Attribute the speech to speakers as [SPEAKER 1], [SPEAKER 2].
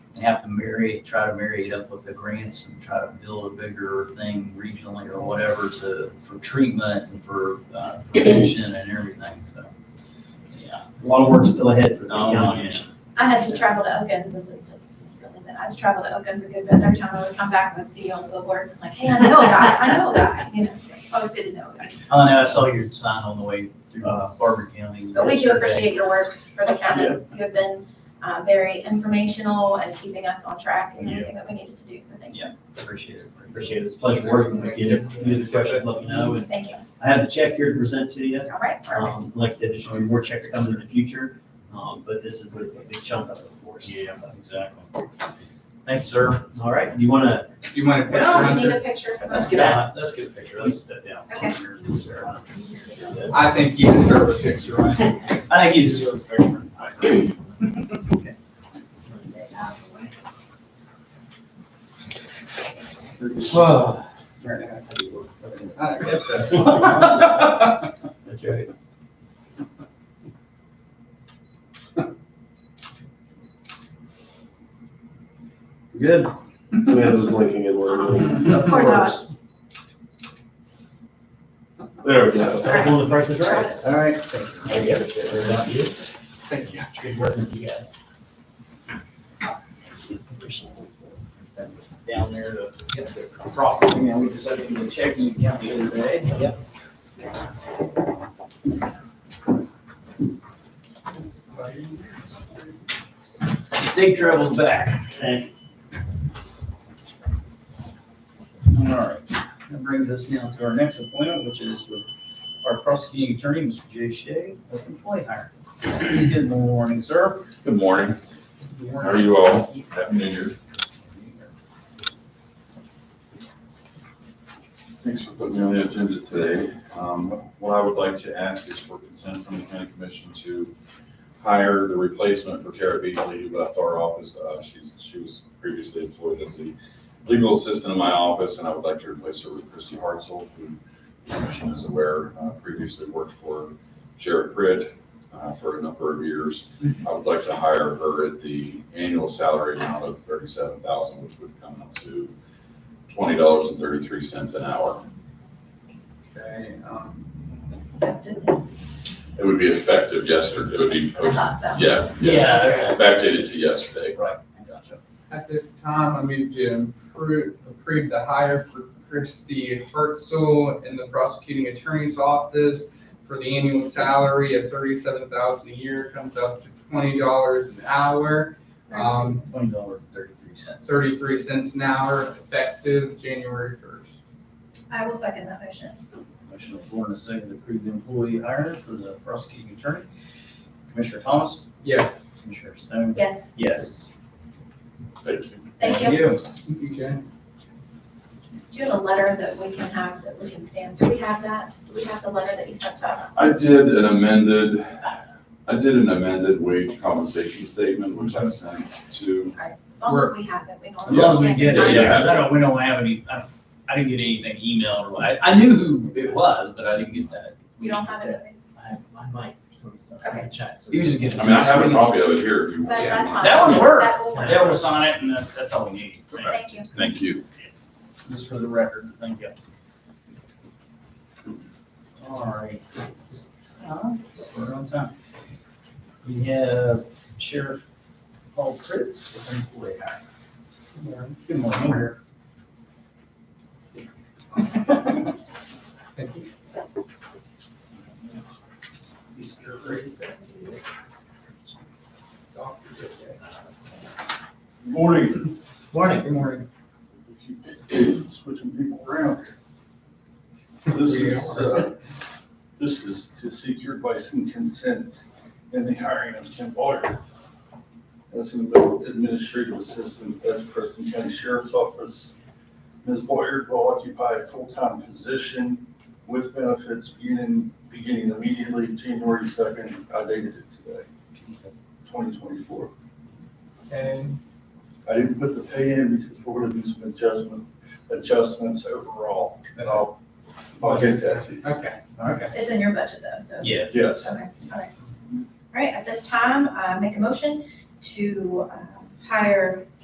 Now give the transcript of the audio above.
[SPEAKER 1] and have to marry, try to marry it up with the grants and try to build a bigger thing regionally or whatever to, for treatment and for, uh, prevention and everything, so. Yeah,
[SPEAKER 2] A lot of work still ahead for the
[SPEAKER 1] Oh,
[SPEAKER 2] county
[SPEAKER 1] yeah.
[SPEAKER 2] commission.
[SPEAKER 3] I had to travel to Oakens, this is just something that, I had to travel to Oakens a good bit, every time I would come back, I would see you on the billboard, like, hey, I know a guy, I know a guy, you know, it's always good to know a guy.
[SPEAKER 1] I know, I saw your sign on the way through uh, Barber County.
[SPEAKER 3] But we do
[SPEAKER 1] yesterday.
[SPEAKER 3] appreciate your work for the county, you have been, uh, very informational and keeping us on track and everything that we needed to do, so thank you,
[SPEAKER 1] Appreciate it.
[SPEAKER 2] Appreciate it. It's a pleasure working with you. If you have any questions, let me know. And
[SPEAKER 3] thank you,
[SPEAKER 2] I have a check here to present to you.
[SPEAKER 3] all right, perfect.
[SPEAKER 2] Um, like I said, there should be more checks coming in the future, um, but this is a a big chunk of it, of course.
[SPEAKER 4] Yeah,
[SPEAKER 2] So,
[SPEAKER 4] exactly.
[SPEAKER 1] Thanks, sir.
[SPEAKER 2] All right, you want to,
[SPEAKER 4] Do you mind if
[SPEAKER 3] Oh, we
[SPEAKER 4] I
[SPEAKER 3] need a
[SPEAKER 4] surrender?
[SPEAKER 3] picture for
[SPEAKER 1] Let's
[SPEAKER 3] that.
[SPEAKER 1] get out, let's get a picture.
[SPEAKER 2] let's
[SPEAKER 1] Let's-
[SPEAKER 2] step down.
[SPEAKER 3] Okay.
[SPEAKER 2] uh,
[SPEAKER 4] I think you deserve a picture, right?
[SPEAKER 1] I think you deserve a favor.
[SPEAKER 4] Well, I guess that's.
[SPEAKER 2] That's right. Good.
[SPEAKER 5] Samantha's blinking in one.
[SPEAKER 3] Of course I was.
[SPEAKER 5] There we go.
[SPEAKER 3] right.
[SPEAKER 2] Well, the price is right.
[SPEAKER 1] All right.
[SPEAKER 2] Thank you. Very about you.
[SPEAKER 4] Thank you.
[SPEAKER 2] Good work with you guys.
[SPEAKER 1] Down there to get the property, man, we decided to do a checking account the other day. Yep. Safe travels back.
[SPEAKER 2] Thanks.
[SPEAKER 1] All right, that brings us now to our next appointment, which is with our prosecuting attorney, Mr. Jay Shea, of employee hire. Good morning, sir.
[SPEAKER 6] Good morning. How are you all? Happy New Year. Thanks for putting me on the agenda today. Um, What I would like to ask is for consent from the county commission to hire the replacement for Tara Beasley, who left our office. Uh, She's, she was previously employed as the legal assistant in my office, and I would like to replace her with Christy Hartzell, who the commission is aware uh, previously worked for Sheriff Pritt uh, for a number of years. I would like to hire her at the annual salary amount of thirty-seven thousand, which would come up to twenty dollars and thirty-three cents an hour.
[SPEAKER 1] Okay, um,
[SPEAKER 3] Accepted.
[SPEAKER 6] It would be effective yesterday, it would be,
[SPEAKER 3] I thought so.
[SPEAKER 6] yeah, yeah,
[SPEAKER 2] Yeah.
[SPEAKER 6] backdated to yesterday.
[SPEAKER 1] gotcha.
[SPEAKER 4] At this time, I move to approve, approve the hire for Christy Hartzell in the prosecuting attorney's office for the annual salary of thirty-seven thousand a year, comes up to twenty dollars an hour. Um,
[SPEAKER 1] Twenty dollar thirty-three cents.
[SPEAKER 4] thirty-three cents an hour, effective January first.
[SPEAKER 3] I will second that motion.
[SPEAKER 1] Motion on the floor and a second to approve the employee hire for the prosecuting attorney. Commissioner Thomas?
[SPEAKER 4] Yes.
[SPEAKER 1] Commissioner Stone?
[SPEAKER 3] Yes,
[SPEAKER 1] Yes.
[SPEAKER 6] Thank you.
[SPEAKER 3] thank you.
[SPEAKER 4] Thank you, Jen.
[SPEAKER 3] Do you have a letter that we can have, that we can stamp? Do we have that? Do we have the letter that you sent to us?
[SPEAKER 6] I did an amended, I did an amended wage compensation statement, which I sent to,
[SPEAKER 3] Right, As long as we have it, we don't.
[SPEAKER 1] As long as we get it,
[SPEAKER 6] Yeah.
[SPEAKER 1] yeah, 'cause I don't, we don't have any, I, I didn't get anything emailed, or I, I knew who it was, but I didn't get that.
[SPEAKER 3] You don't have anything?
[SPEAKER 2] I, I might, so it's not,
[SPEAKER 3] Okay.
[SPEAKER 2] chat.
[SPEAKER 1] You just get.
[SPEAKER 6] I mean, I have a copy of it here if you
[SPEAKER 3] That,
[SPEAKER 6] want.
[SPEAKER 3] that's fine.
[SPEAKER 1] That would work.
[SPEAKER 3] That will work.
[SPEAKER 1] Yeah, we'll sign it, and that's, that's all we need.
[SPEAKER 3] Thank you.
[SPEAKER 6] Thank you.
[SPEAKER 1] Just for the record, thank you. All right. This time, We're on time. We have Sheriff Paul Fritz with employee hire. Good morning.
[SPEAKER 4] Thank you.
[SPEAKER 7] Morning.
[SPEAKER 1] Morning. Good morning.
[SPEAKER 7] Switching people around. here. This
[SPEAKER 4] We
[SPEAKER 7] is, uh, this is to seek your advice and consent in the hiring of Kim Boyer as an administrative assistant at Preston County Sheriff's Office. Ms. Boyer will occupy a full-time position with benefits beginning, beginning immediately January second. I dated it today, twenty twenty-four.
[SPEAKER 4] And
[SPEAKER 7] I didn't put the pay in because we're gonna do some adjustment, adjustments overall, and I'll, I'll get that to you.
[SPEAKER 4] Okay,
[SPEAKER 1] Okay.
[SPEAKER 3] It's in your budget though, so.
[SPEAKER 1] Yeah.
[SPEAKER 7] Yes.
[SPEAKER 3] Okay, all right. All right, at this time, uh, make a motion to, uh, hire